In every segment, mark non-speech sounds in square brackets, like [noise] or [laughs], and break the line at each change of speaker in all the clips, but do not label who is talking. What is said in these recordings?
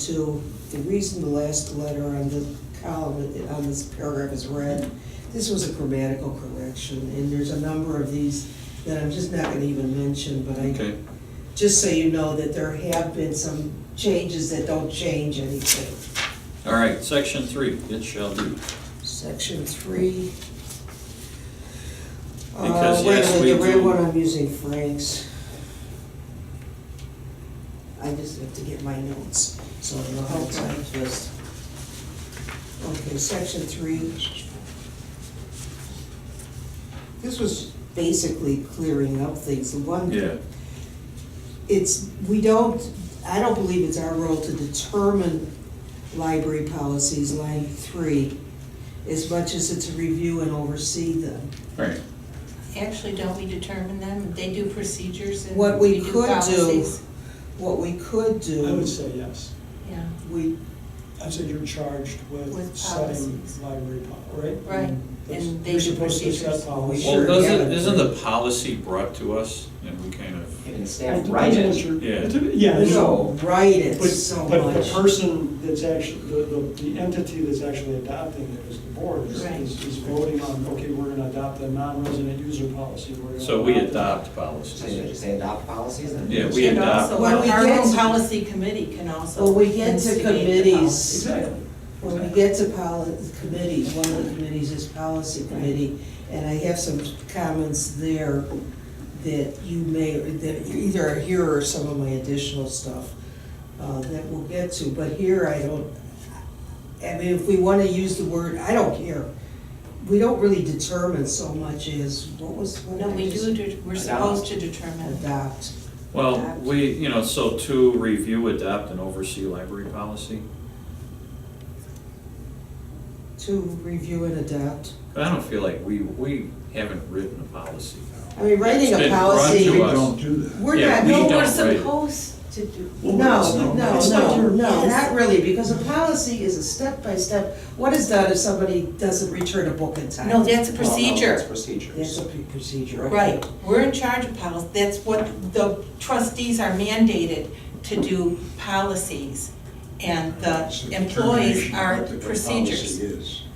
to, the reason the last letter on the column, on this paragraph is red, this was a grammatical correction, and there's a number of these that I'm just not gonna even mention, but I,
Okay,
just so you know that there have been some changes that don't change anything.
all right, section three, it shall do.
Section three. Uh,
Because
wait a
yes,
minute,
we
The red
do-
one, I'm using Frank's. I just have to get my notes, so I know how to type this. Okay, section three. This was basically clearing up things. The one
Yeah,
it's, we don't, I don't believe it's our role to determine library policies, line three, as much as it's review and oversee them.
all right,
Actually, don't we determine them? They do procedures and.
What we
do
could do-
policies.
What we could
I would
do,
say yes.
Yeah,
we,
I said you're charged with
With
setting
policies.
library, pol- right?
Right,
That's-
and they
You're
do
supposed to set
procedures.
policies.
Sure,
well, doesn't,
yeah.
isn't the policy brought to us and we kind of,
And
It
staff write
depends on what
it.
you're-
Yeah.
it dep- Yeah,
you
it's-
know, write it so
but, but the
much.
person that's actually, the, the- the entity that's actually adopting it is the board, is,
Right.
is is voting on, okay, we're gonna adopt a non-resident user policy. We're gonna
so we adopt
adopt
So you
policies.
just say adopt policies and.
Yeah, we
And
adopt-
also,
When we
our
get
own
to-
policy committee can also.
When we get to
instigate the
committees,
it.
policy.
Exactly.
When we get to poli, committees, one of the committees is policy committee, and I have some comments there that you may, that you either are here or some of my additional stuff uh, that we'll get to, but here I don't, I mean, if we want to use the word, I don't care. We don't really determine so much as, what was? what
No,
I
we
just-
do, de- we're supposed to determine.
Adopt.
Well, we, you know, so to review, adopt and oversee library policy.
To review and adopt.
But I don't feel like we, we haven't written a policy.
I mean, writing
It's
a
been brought
policy,
to us.
don't do that.
we're
Yeah,
not,
we
no,
don't
No, we're
write it.
supposed to do.
No, no,
It's like
no,
you're-
no,
Yes.
not really, because a policy is a step-by-step, what is done if somebody doesn't return a book in time?
No, that's a
Well, no, It's
procedure.
That's
procedures.
a pre- procedure, okay.
Right, we're in charge of policy. That's what the trustees are mandated to do policies. And the employees are procedures.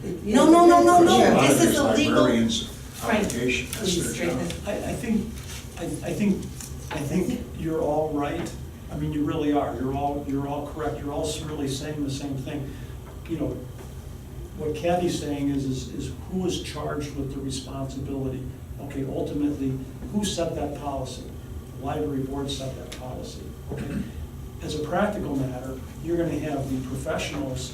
It-
No, no, no, no, no,
Yeah.
this is a legal-
Librarians'
Frank,
obligation,
please
that's their
straighten
job.
this.
I, I think, I, I think, I think you're all right. I mean, you really are. You're all, you're all correct. You're all really saying the same thing. You know, what Kathy's saying is, is, is who is charged with the responsibility? Okay, ultimately, who set that policy? The library board set that policy, okay? As a practical matter, you're gonna have the professionals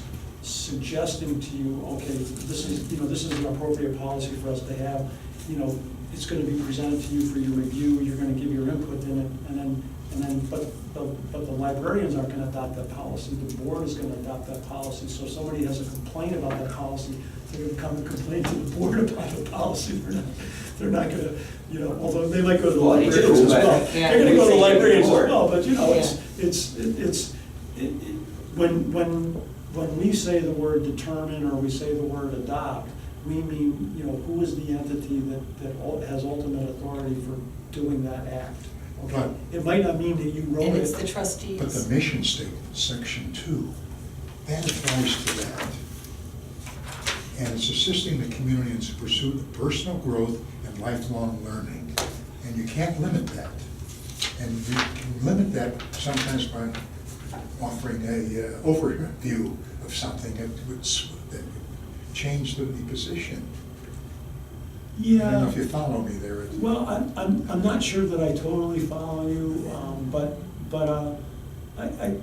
suggesting to you, okay, this is, you know, this is an appropriate policy for us to have, you know, it's gonna be presented to you for your review, you're gonna give your input in it, and then, and then, but, the but the librarians aren't gonna adopt that policy, the board is gonna adopt that policy, so if somebody has a complaint about that policy, they're gonna come and complain to the board [laughs] about the policy, they're not, they're not gonna, you know, although they might go to the
Well, they do,
librarians as
but
well.
they can't
They're gonna go to the
really say to the
librarians as
board.
well, but you know, it's, it's, it- it's, it- it- when, when, when we say the word determine or we say the word adopt, we mean, you know, who is the entity that, that ul- has ultimate authority for doing that act? Okay,
Right.
It might not mean that you wrote
And it's the
it.
But the
trustees.
mission statement, section two, that applies to that. And it's assisting the community in its pursuit of personal growth and lifelong learning. And you can't limit that. And you can limit that sometimes by offering a uh, overview of something that would, s- that would change the the position. I don't know
Yeah,
if you follow me there. It's-
well, I'm, I'm, I'm not sure that I totally follow you, um, but, but, uh, I, I,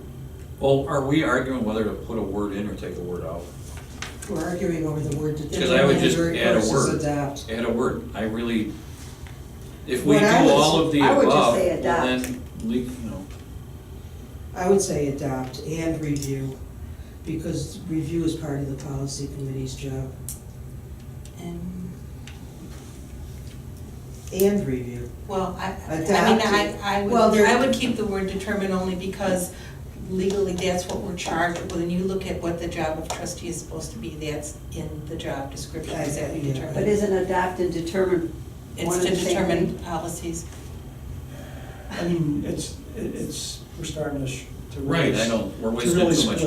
Well, are we arguing whether to put a word in or take a word out?
We're arguing over the word to
Because I would just
determine
add a
versus
word.
adopt.
Add a word, I really, if we
What
do
I would-
all of the
I would just
above,
say
well,
adopt.
then, leave, you know,
I would say adopt and review, because review is part of the policy committee's job,
And,
and review.
well, I, I mean,
Adapted.
I, I
Well,
would,
there-
I would keep the word determine only because legally, that's what we're charged. with. When you look at what the job of trustee is supposed to be, that's in the job description, is that we
Yeah.
determine.
But isn't adopt and determine one
It's
and
to
the same
determine
thing?
policies.
I mean, it's, it- it's, we're starting to, sh- to really.
Right, I know, we're
to
wasting
really
too much